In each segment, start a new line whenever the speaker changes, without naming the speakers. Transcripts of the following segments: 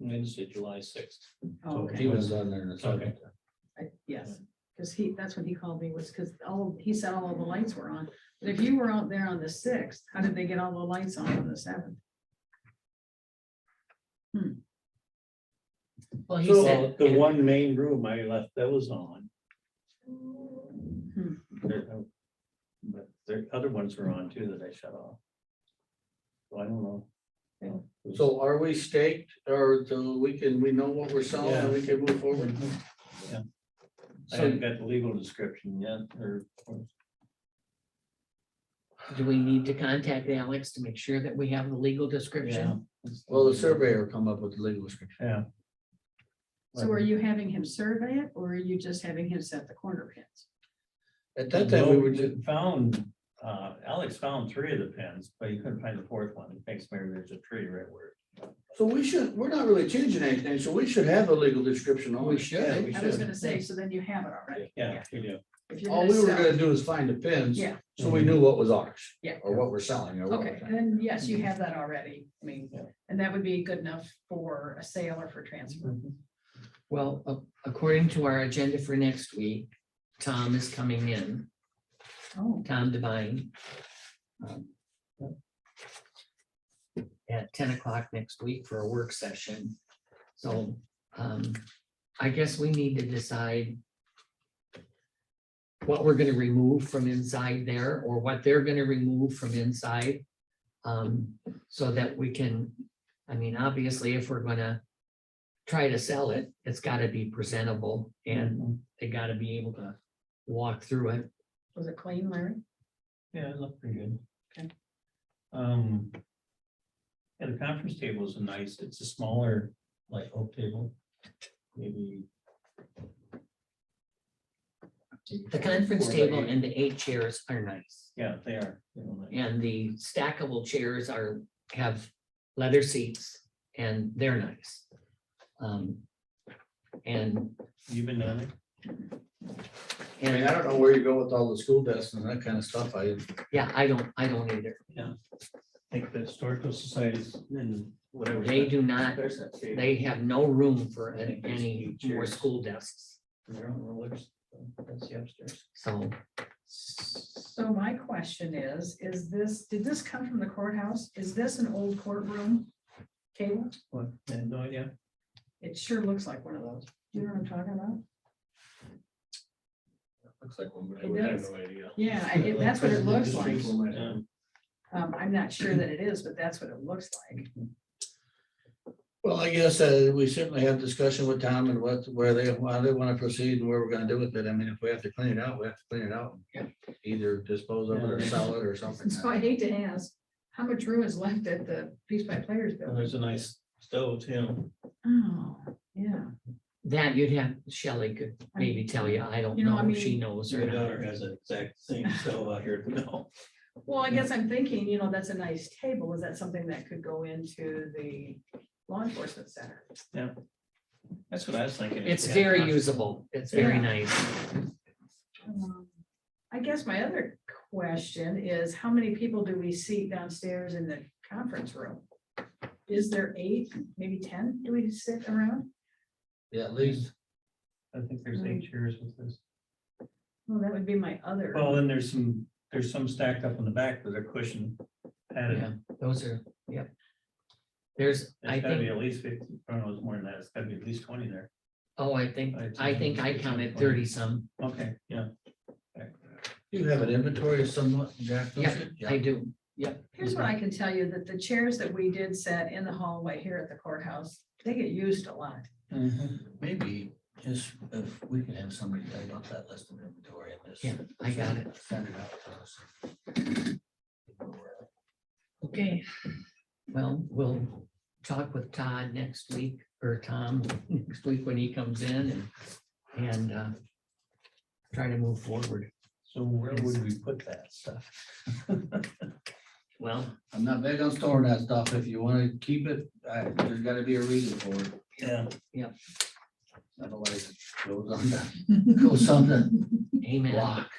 Mine said July sixth.
Oh,
So
okay.
He was on there. in a second.
I- Yes, because he, that's what he called me was because all, he said all of the lights were on. But if you were out there on the sixth, how did they get all the lights on on the seventh?
Well, you
So
said,
the one main room I left, that was on. There- oh, But the other ones were on too that I shut off. So I don't know.
So are we staked or do we can, we know what we're selling and we can move forward?
I
So
haven't got the legal description yet, or, or-
do we need to contact Alex to make sure that we have the legal
yeah.
description?
will the surveyor come up with the legal description?
Yeah.
So are you having him survey it or are you just having him set the corner pins?
At that time, we were
No,
just,
Found, uh, Alex found three of the pins, but he couldn't find the fourth one. It thinks maybe there's a tree right where.
so we should, we're not really changing anything, so we should have a legal description on
We
it.
should,
Yeah,
we
I was gonna say, so then you have it already.
Yeah, we do.
If you're
All
gonna
Oh, we were
sell-
gonna do is find the pins.
Yeah.
So we knew what was ours.
Yeah.
Or what we're selling or what. we're
Okay,
selling.
then yes, you have that already. I mean,
Yeah.
and that would be good enough for a sale or for transfer.
Well, a- according to our agenda for next week, Tom is coming in,
Oh,
Tom Devine. um, At ten o'clock next week for a work session. So um, I guess we need to decide what we're gonna remove from inside there or what they're gonna remove from inside. um, So that we can, I mean, obviously, if we're gonna try to sell it, it's gotta be presentable and
Mm-hmm.
they gotta be able to walk through it.
was it clean, Larry?
Yeah, it looked pretty good.
Okay.
Um. Yeah, the conference table is a nice, it's a smaller, like oak table, maybe.
The conference
Four by
table
eight.
and the eight chairs are nice.
Yeah, they are. you know, like-
And the stackable chairs are, have leather seats and they're nice. Um, And,
You've been on it?
I mean, I
and,
don't know where you go with all the school desks and that kind of stuff. I,
yeah, I don't, I don't either.
I think the historical societies and whatever.
They do not,
There's that table.
they have no room for an- any more school desks.
They're on rollers. That's the upstairs.
So
So my question is, is this, did this come from the courthouse? Is this an old courtroom table?
What, I had no idea.
It sure looks like one of those. You know what I'm talking about?
looks like one,
It
but I have
does.
no idea.
Yeah, I- it- that's what it
uh,
looks like.
Yeah.
Um, I'm not sure that it is, but that's what it looks like.
Well, I guess uh, we certainly have discussion with Tom and what, where they, why they want to proceed and where we're gonna do with it. I mean, if we have to clean it out, we have to clean it out.
Yeah.
Either dispose of it or sell it or something.
So I hate to ask, how much room is left at the Peace by Players
And
building?
there's a nice stove too.
Oh, yeah.
that you'd have, Shelley could maybe tell you, I don't
You know, I
know if she
mean-
knows or
Your
not.
daughter has an exact same stove out here. No.
Well, I guess I'm thinking, you know, that's a nice table. Is that something that could go into the law enforcement center?
That's what I was thinking.
It's
Yeah.
very usable. It's very
Yeah.
nice.
Um, I guess my other question is, how many people do we seat downstairs in the conference room? Is there eight, maybe ten? Do we sit around?
Yeah, at least.
I think there's eight chairs with this.
Well, that would be my other.
Well, and there's some, there's some stacked up in the back with a cushion
Yeah,
padded.
those are, yep. There's, I
It's gotta be
think,
at least fifty, I don't know, it's more than that. It's gotta be at least twenty there.
oh, I think,
I'd
I
say
think I
it's
counted
20.
thirty some.
Okay, yeah.
Do you have an inventory somewhat, Jack? don't
Yep,
you?
I do.
Here's what I can tell you, that the chairs that we did set in the hallway here at the courthouse, they get used a lot.
Mm-hmm.
Maybe just if we can have somebody type up that list of inventory and just.
Yeah, I got it.
Send it out to us.
Okay. Well, we'll talk with Todd next week or Tom next week when he comes in and, and, uh, try to move forward.
So where would we put that stuff?
Well,
I'm not big on storing that stuff. If you wanna keep it, I, there's gotta be a reason for it.
Yeah.
Otherwise, it goes on the, goes on the
amen.
block.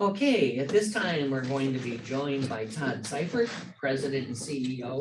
Okay, at this time, we're going to be joined by Todd Seifert, President and E CEO